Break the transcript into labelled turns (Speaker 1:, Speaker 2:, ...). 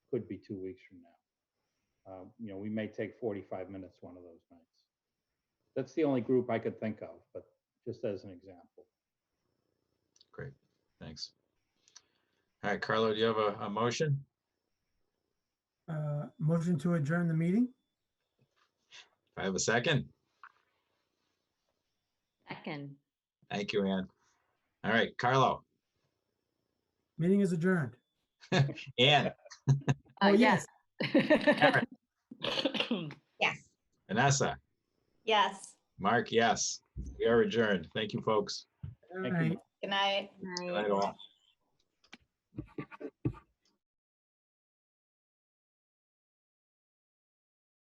Speaker 1: could be two weeks from now. Uh, You know, we may take 45 minutes one of those nights. That's the only group I could think of, but just as an example.
Speaker 2: Great, thanks. All right, Carlo, do you have a, a motion?
Speaker 3: Uh, Motion to adjourn the meeting?
Speaker 2: Do I have a second?
Speaker 4: Second.
Speaker 2: Thank you, Ann. All right, Carlo,
Speaker 3: Meeting is adjourned.
Speaker 2: Ann,
Speaker 3: Oh,
Speaker 4: Uh, yes.
Speaker 5: Yes.
Speaker 2: Vanessa,
Speaker 5: Yes.
Speaker 2: Mark, yes. We are adjourned. Thank you, folks.
Speaker 1: Thank you.
Speaker 3: Right.
Speaker 5: Good night.
Speaker 2: Good night all.